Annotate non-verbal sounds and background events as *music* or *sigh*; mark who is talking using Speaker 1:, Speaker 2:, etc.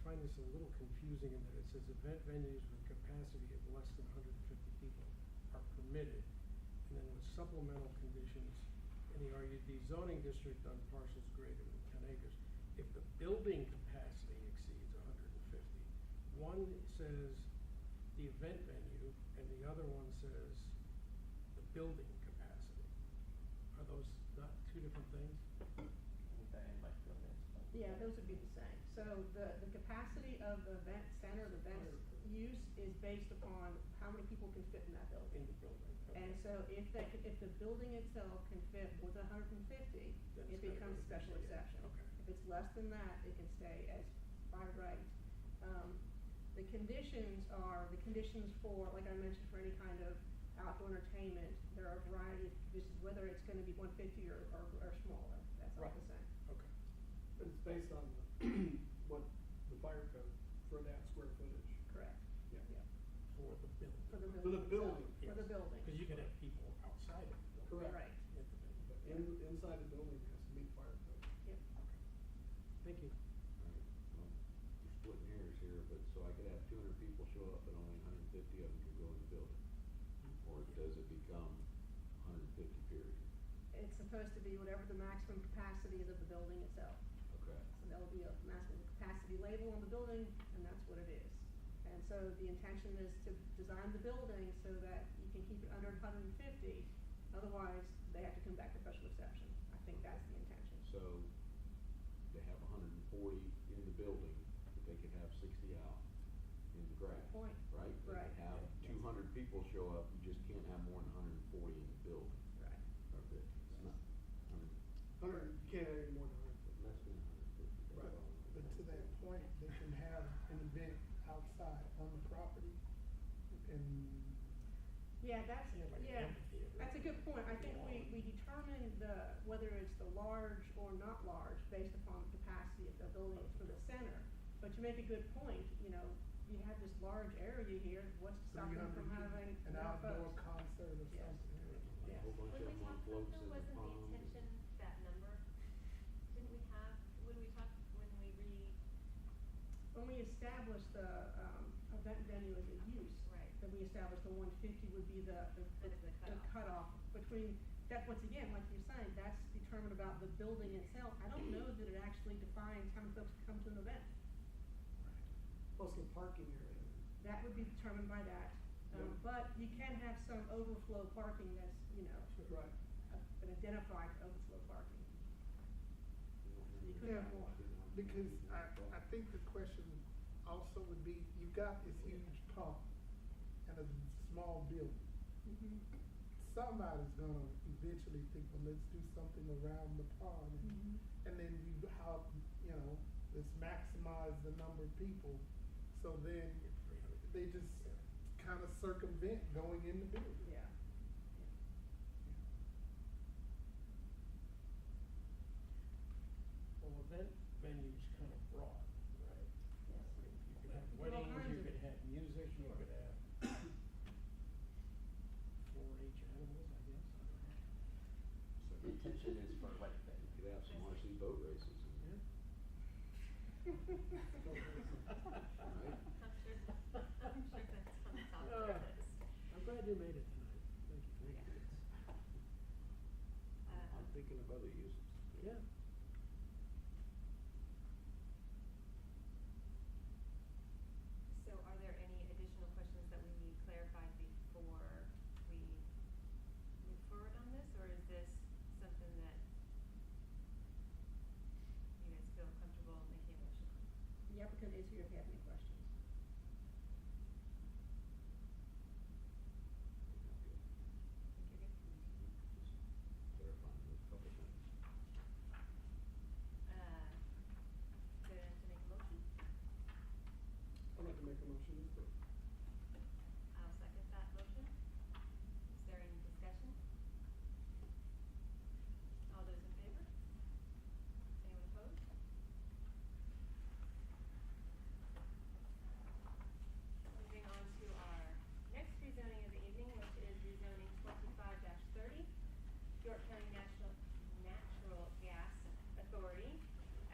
Speaker 1: find this a little confusing in that it says event venues with capacity of less than hundred and fifty people are permitted. And then with supplemental conditions in the RUD zoning district on parcels greater than ten acres. If the building capacity exceeds hundred and fifty, one says the event venue and the other one says the building capacity. Are those not two different things?
Speaker 2: Put that in my field, that's fine.
Speaker 3: Yeah, those would be the same. So the, the capacity of the event center, the event use is based upon how many people can fit in
Speaker 1: In
Speaker 3: that building.
Speaker 1: the building. okay.
Speaker 3: And so if that, if the building itself can fit with hundred and fifty,
Speaker 1: Then it's
Speaker 3: it
Speaker 1: gotta go
Speaker 3: becomes
Speaker 1: to
Speaker 3: special
Speaker 1: the- yeah,
Speaker 3: exception.
Speaker 1: okay.
Speaker 3: If it's less than that, it can stay as by right. Um, The conditions are, the conditions for, like I mentioned, for any kind of outdoor entertainment, there are a variety of conditions, whether it's gonna be one fifty or, or, or smaller, that's all
Speaker 1: Right.
Speaker 3: the same.
Speaker 1: Okay.
Speaker 4: It's based on *clears throat* what the fire code for that square footage.
Speaker 3: Correct.
Speaker 4: Yeah.
Speaker 3: Yeah.
Speaker 1: For the building.
Speaker 3: For the
Speaker 4: For the
Speaker 3: building. itself.
Speaker 4: building.
Speaker 3: For the building.
Speaker 1: Because you could have people outside of the building.
Speaker 4: Correct.
Speaker 3: Right,
Speaker 1: At the building.
Speaker 4: But in, inside the building has to meet fire code.
Speaker 3: yep.
Speaker 1: Okay. Thank you.
Speaker 5: Alright, well, You're splitting hairs here, but so I could have two hundred people show up and only hundred and fifty of them could go in the building? Or does it become hundred and fifty period?
Speaker 3: It's supposed to be whatever the maximum capacity is of the building itself.
Speaker 5: Okay.
Speaker 3: So there'll be a maximum capacity label on the building, and that's what it is. And so the intention is to design the building so that you can keep it under hundred and fifty, otherwise they have to come back for special exception. I think that's the intention.
Speaker 5: So they have hundred and forty in the building, but they could have sixty out in the grass,
Speaker 3: Good point.
Speaker 5: right? They could
Speaker 3: Right.
Speaker 5: have two hundred people show up, you just can't have more than hundred and forty in the building,
Speaker 3: Right.
Speaker 5: or fifty. It's not, I mean,
Speaker 4: Hundred, you can't have any more than hundred fifty.
Speaker 5: less than hundred and fifty.
Speaker 4: Right.
Speaker 6: But to that point, they can have an event outside on the property and
Speaker 3: Yeah, that's,
Speaker 1: Yeah, like an
Speaker 3: yeah,
Speaker 1: amphitheater.
Speaker 3: that's a good point. I think we, we determine the, whether it's the large or not large based upon the capacity of the building for the center. But you make a good point, you know, you have this large area here, what's to stop
Speaker 6: three
Speaker 3: them
Speaker 6: hundred,
Speaker 3: from having
Speaker 6: an
Speaker 3: more
Speaker 6: outdoor
Speaker 3: folks?
Speaker 6: concert or
Speaker 3: Yes.
Speaker 6: something.
Speaker 5: A whole
Speaker 3: Yes.
Speaker 5: bunch of
Speaker 7: When
Speaker 5: them
Speaker 7: we
Speaker 5: on
Speaker 7: talked
Speaker 5: floats
Speaker 7: about
Speaker 5: in
Speaker 7: though,
Speaker 5: the
Speaker 7: wasn't the
Speaker 5: pond.
Speaker 7: intention that number? Didn't we have, when we talked, when we re,
Speaker 3: When we establish the, um, event venue as a use.
Speaker 7: Right.
Speaker 3: Then we establish the one fifty would be the, the,
Speaker 7: That is the
Speaker 3: the cutoff
Speaker 7: cutoff.
Speaker 3: between, that, once again, like you're saying, that's determined about the building itself. I don't know that it actually defines how many folks come to an event.
Speaker 4: Plus the parking area.
Speaker 3: That would be determined by that. Um, but you can have some overflow parking that's, you know,
Speaker 4: Right.
Speaker 3: a- an identified overflow parking. You could
Speaker 6: Yeah,
Speaker 3: have more.
Speaker 6: because I, I think the question also would be, you've got this huge pump and a small building. Somebody's gonna eventually think, well, let's do something around the pond
Speaker 3: Mm-hmm.
Speaker 6: and and then you how you know let's maximize the number of people so then
Speaker 1: Three hundred.
Speaker 6: they just kind of circumvent going in the building
Speaker 3: Yeah.
Speaker 1: Well, event venue's kind of broad, right?
Speaker 3: *laughs*
Speaker 1: You could have
Speaker 3: Well, all
Speaker 1: weddings, you
Speaker 3: kinds of-
Speaker 1: could have music, you could have four H animals, I guess. I
Speaker 2: So the intention is for what then?
Speaker 5: You could have some RC boat races. in there.
Speaker 1: *laughs* don't know. Yeah.
Speaker 7: I'm sure, I'm Uh, sure
Speaker 2: *laughs*
Speaker 7: that's on the top of
Speaker 1: Yeah.
Speaker 7: the list.
Speaker 1: I'm glad you made it tonight. Thank you.
Speaker 7: Yeah.
Speaker 5: I'm
Speaker 7: Uh,
Speaker 5: thinking of other uses.
Speaker 1: Yeah.
Speaker 7: So are there any additional questions that we need clarified before we move forward on this, or is this something that you guys feel comfortable making a motion on?
Speaker 3: Yeah, because it's here if you have any questions.
Speaker 7: Think you're good?
Speaker 5: Just Clarifying those couple things.
Speaker 7: Uh, to, to make a motion.
Speaker 4: I'd like to make a motion to approve.